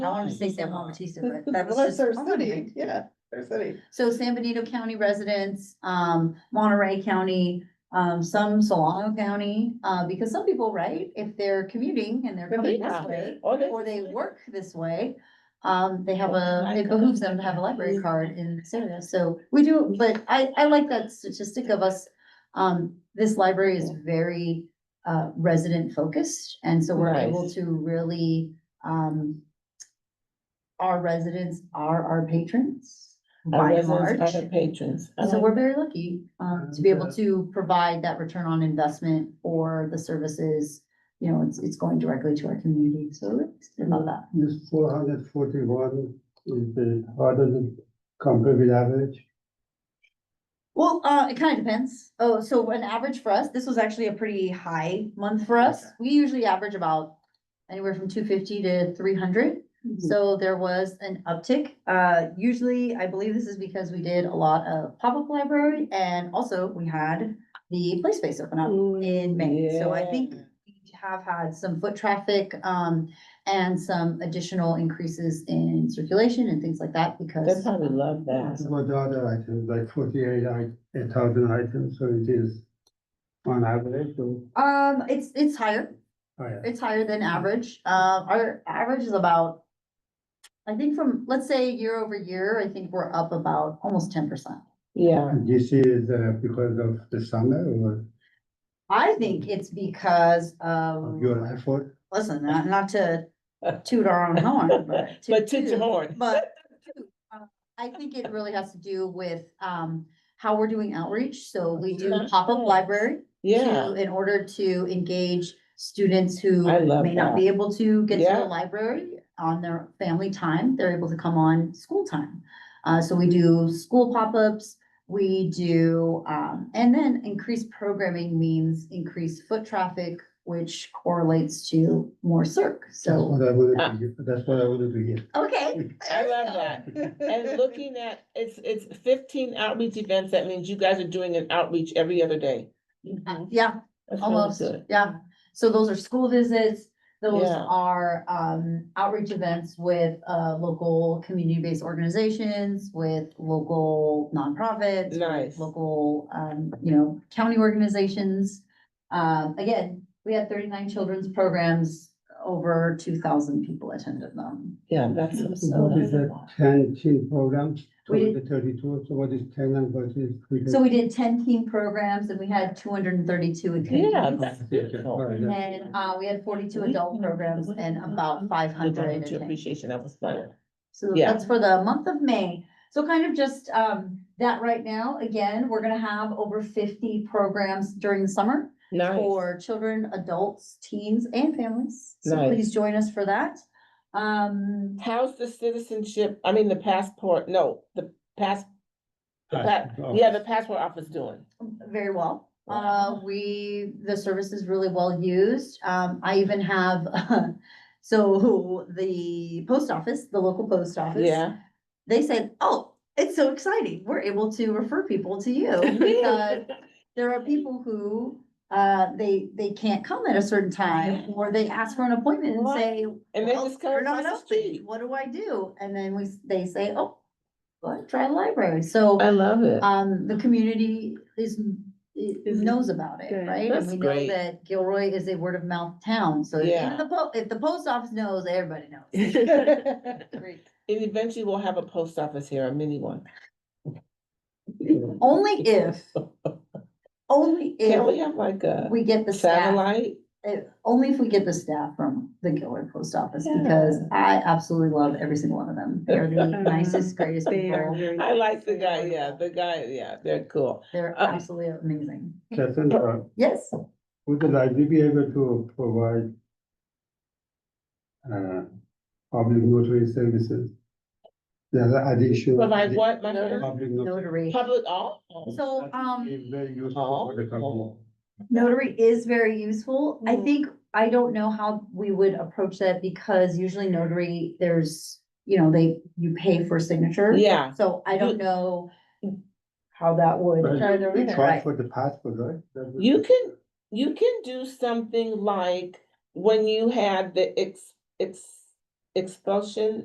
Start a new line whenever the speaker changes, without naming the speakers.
I wanted to say San Juan Bautista, but that
That's
was
their
just. Oh,
city, yeah, their city.
So San Benito County residents, um, Monterey County, um, some Solano County, uh, because some people, right? If they're commuting and they're
Oh,
coming this way, or they work this way, um, they have a, it behooves them to have a library card in this area, so we do, but I, I like that statistic of us. Um, this library is very, uh, resident focused, and so we're able
Nice.
to really, um. Our residents are our patrons by and large,
Other patrons. I
so
like-
we're very lucky, um, to be able
Mhm.
to provide that return on investment for the services. You know, it's, it's going directly to our community, so I love that.
This four hundred forty-one is the harder than compared with average.
Well, uh, it kind of depends. Oh, so an average for us, this was actually a pretty high month for us.
Okay.
We usually average about anywhere from two fifty to three hundred.
Hmm.
So there was an uptick. Uh, usually, I believe this is because we did a lot of pop-up library and also we had the play space open up in May. So I think
Mm, Yeah.
we have had some foot traffic, um, and some additional increases in circulation and things like that
They
because
probably love
Mm-hmm.
that.
What the other items, like forty-eight, i- a thousand items, so it is on average oh, or
um, it's, it's higher.
higher.
It's higher than average. Uh, our average is about, I think from, let's say year over year, I think we're up about almost ten percent.
Yeah,
This is uh, because of the summer or
I think it's because of,
of your effort?
listen, not, not to toot our own horn, but. to
but toot your
toot-
horn.
But uh, I think it really has to do with, um, how we're doing outreach. So we do
Yeah.
pop-up library.
Yeah,
to- In order to engage students who
I love
may not
that.
be able to get to
Yeah.
the library on their family time, they're able to come on school time. Uh, so we do school pop-ups, we do, um, and then increased programming means increased foot traffic, which correlates to more circ,
That's
so,
what I wanted to hear, that's what I wanted to hear.
okay.
I love that. And looking at, it's, it's fifteen outreach events. That means you guys are doing an outreach every other day.
Uh, Yeah,
That's really
almost,
good.
yeah. So those are school visits, those
Yeah.
are um outreach events with uh local community-based organizations, with local nonprofits.
Nice.
Local, um, you know, county organizations. Um, again, we had thirty-nine children's programs, over two thousand people attended them.
Yeah, that's. that's-
Mm-hmm.
What is that, ten teen programs,
We
total the thirty-two, so what is ten and what is? three?
So we did ten teen programs and we had two hundred and thirty-two attendees.
Yeah, that's
Okay, all
beautiful.
right, that's-
And uh, we had forty-two adult programs and about five
The
hundred
volunteer appreciation, that was fun.
So
Yeah.
that's for the month of May. So kind of just um that right now, again, we're gonna have over fifty programs during the summer
Nice.
for children, adults, teens and families. So
Nice.
please join us for that. Um,
How's the citizenship, I mean, the passport, no, the pass, the pa-
Passport
yeah, the
office.
passport office doing.
very well. Uh, we, the service is really well used. Um, I even have, so the post office, the local post office.
Yeah.
They said, oh, it's so exciting. We're able to refer people to you because there are people who, uh, they, they can't come at a certain time, or they ask for an appointment and
What?
say.
And they
"Well,
just come
they're
across
not
the
open.
street.
What do I do? And then we, s- they say, oh, well, try the library, so,
I love it.
um, the community is, it
Is
knows about it,
good.
right?
That's
And we know
great.
that Gilroy is a word of mouth town, so if
Yeah.
the po- if the post office knows, everybody knows.
And eventually we'll have a post office here, a mini one.
Only if, only
Can we
if
have like a
we get the staff.
satellite?
it- only if we get the staff from the Gilroy Post Office,
Yeah.
because I absolutely love every single one of them. They're the nicest, greatest people.
I like the guy, yeah, the guy, yeah, they're cool.
They're
Uh,
absolutely amazing.
Cassandra,
Yes,
Would the library be able to provide uh, public notary services? The other addition.
But like what, my,
Notary.
Public notary.
notary.
public, all?
So, um.
It's Very useful for the company.
Notary is very useful. I think, I don't know how we would approach that because usually notary, there's, you know, they, you pay for signature.
Yeah,
So I don't know how that would.
Right.
Right.
Try for the passport, right? That would-
you can, you can do something like when you had the ex, ex, expulsion